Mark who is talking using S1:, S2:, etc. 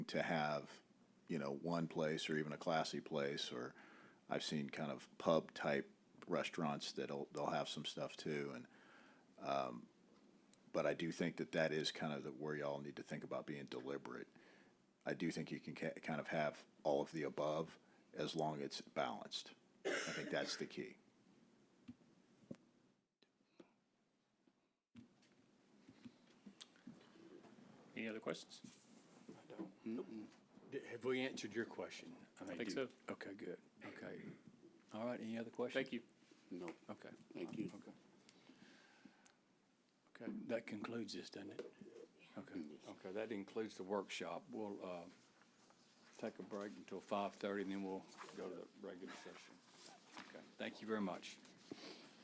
S1: to have, you know, one place or even a classy place, or I've seen kind of pub type restaurants that'll, they'll have some stuff too, and, um, but I do think that that is kind of the, where y'all need to think about being deliberate. I do think you can ca- kind of have all of the above as long as it's balanced. I think that's the key.
S2: Any other questions?
S3: D- Have we answered your question? mean,
S2: think
S3: do-
S2: so.
S3: Okay, good. Okay. All right, any other questions?
S2: Thank you.
S4: No,
S3: Okay,
S4: thank you.
S3: okay. Okay, that concludes this, doesn't it? Okay, okay, that includes the workshop. We'll uh, take a break until 5:30, and then we'll go to the regular session. Okay, thank you very much.